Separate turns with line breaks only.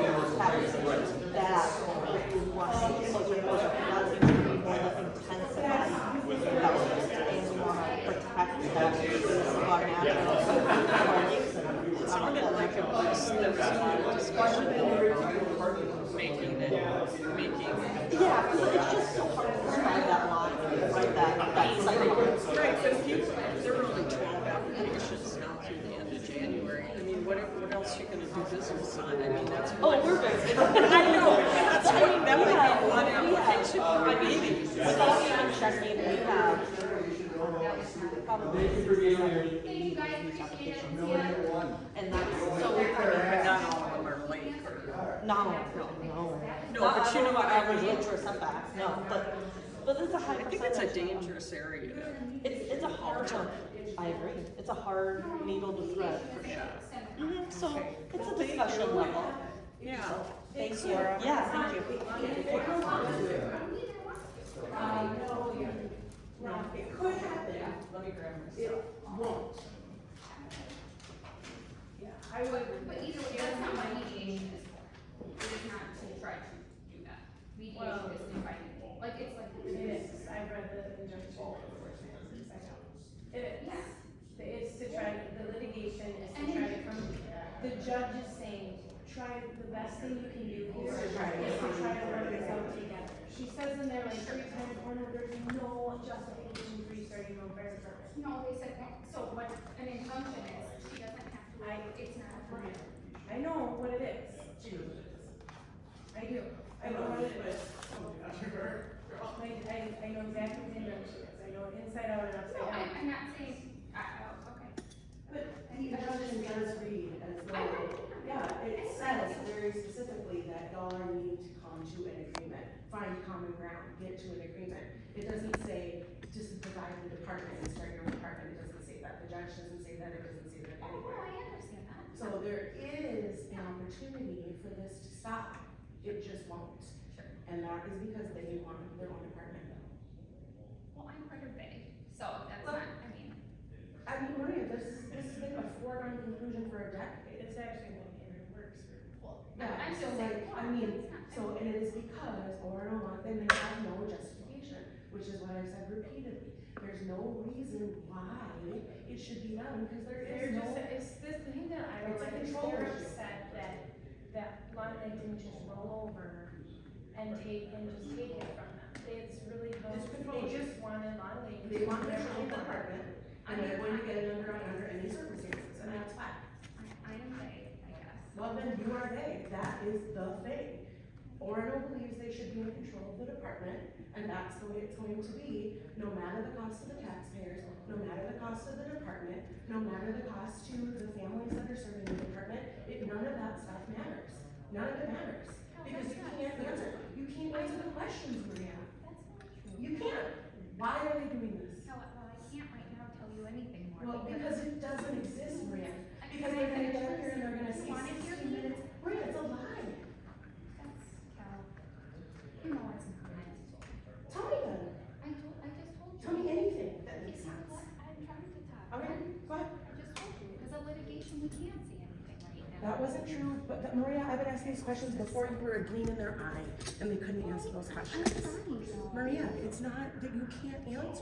that that we want to see, so there was more than 50% of somebody that was just in, we want to protect that is our natural, our lakes and our electric.
There was a lot of discussion over making it, making.
Yeah, 'cause it's just so hard to describe that line, right, that, that cycle.
Right, but if you, there were only twelve applications now through the end of January. I mean, what, what else you gonna do business on? I mean, that's. Oh, we're busy. I know, that's, I mean, that would be one application on eighty.
Without even checking, we have probably 60, 70, 80 applications. And that's so,
But
I mean,
not all of them are late. or-
No, no, no.
No,
Not-
but
I
you
don't
know what I
average
mean.
age or setbacks, no, but, but it's a high
I
percentage.
think it's a
um,
dangerous area.
It's, it's a hard one, I agree, it's a hard needle to thread, for sure. Mhm, so, it's a discussion level.
Yeah.
Thanks, Laura. Yeah, thank you.
But either way, that's not what mediation is for. It's not to try to do that. Mediation is to fight, like, it's like.
It is, I've read the injunction report since I know. It is, it's to try, the litigation is to try to come, the judge is saying, try, the best thing you can do here is to try to work this out together. She says in there like three times, oh no, there's no justification for you starting over.
No, they said, no. so what an injunction is, she doesn't have to,
I-
it's not a permit.
I know what it is. I do, I know what it is. I, I, I know exactly what the injunction is, I know it inside out and
No,
upside down.
I, I'm not saying, I, oh, okay.
But the injunction does read as
I
though,
don't know.
yeah, it says very specifically that y'all are needing to come to an agreement, find common ground, get to an agreement. It doesn't say just divide the department and start your own department, it doesn't say that, the judge doesn't say that, it doesn't say that
Oh, no,
anywhere.
I understand that.
So there is an opportunity for this to stop, it just won't.
Sure.
And that is because they want their own department.
Well, I'm part of Bay, so that's not, I mean,
I mean, Maria, this, this has been a foregone conclusion for a decade.
It's actually one year, it works for people.
I-
Yeah,
I'm
so
just saying,
like,
no,
I mean,
it's not.
so and it is because Orin and Watson they have no justification, which is what I've said repeatedly. There's no reason why it should be done, because there
They're
is
just,
no.
it's this thing that I don't
It's a
like, is
control
they're
issue.
upset that, that Monday didn't just roll over and take, and just take it from them. It's really, no-
It's control
they just wanted Monday.
They want their own department, and they want to get it under, under any circumstances, and that's fine.
I, I am Bay, I guess.
Well, then you are they, that is the thing. Orno believes they should be in control of the department, and that's the way it's going to be, no matter the cost to the taxpayers, no matter the cost to the department, no matter the cost to the families that are serving the department, it, none of that stuff matters. None of it matters, because you can't answer, you can't answer the questions, Maria,
That's not true.
you can't. Why are they doing this?
No, well, I can't right now tell you anything more.
Well, because it doesn't exist, Maria,
I-
because they're gonna get up here and they're gonna
You wanna
say
hear
sixteen
me?
minutes, Maria, it's a lie.
That's, Cal, you know it's not.
Tell me then.
I told, I just told you.
Tell me anything that makes
It's not
sense.
what I'm trying to talk.
Okay, go ahead.
I just told you, because of litigation, we can't say anything right now.
That wasn't true, but that- Maria, I've been asking these questions before you were a gleam in their eye and they couldn't answer those
I'm
questions.
trying, though.
Maria, it's not that you can't answer.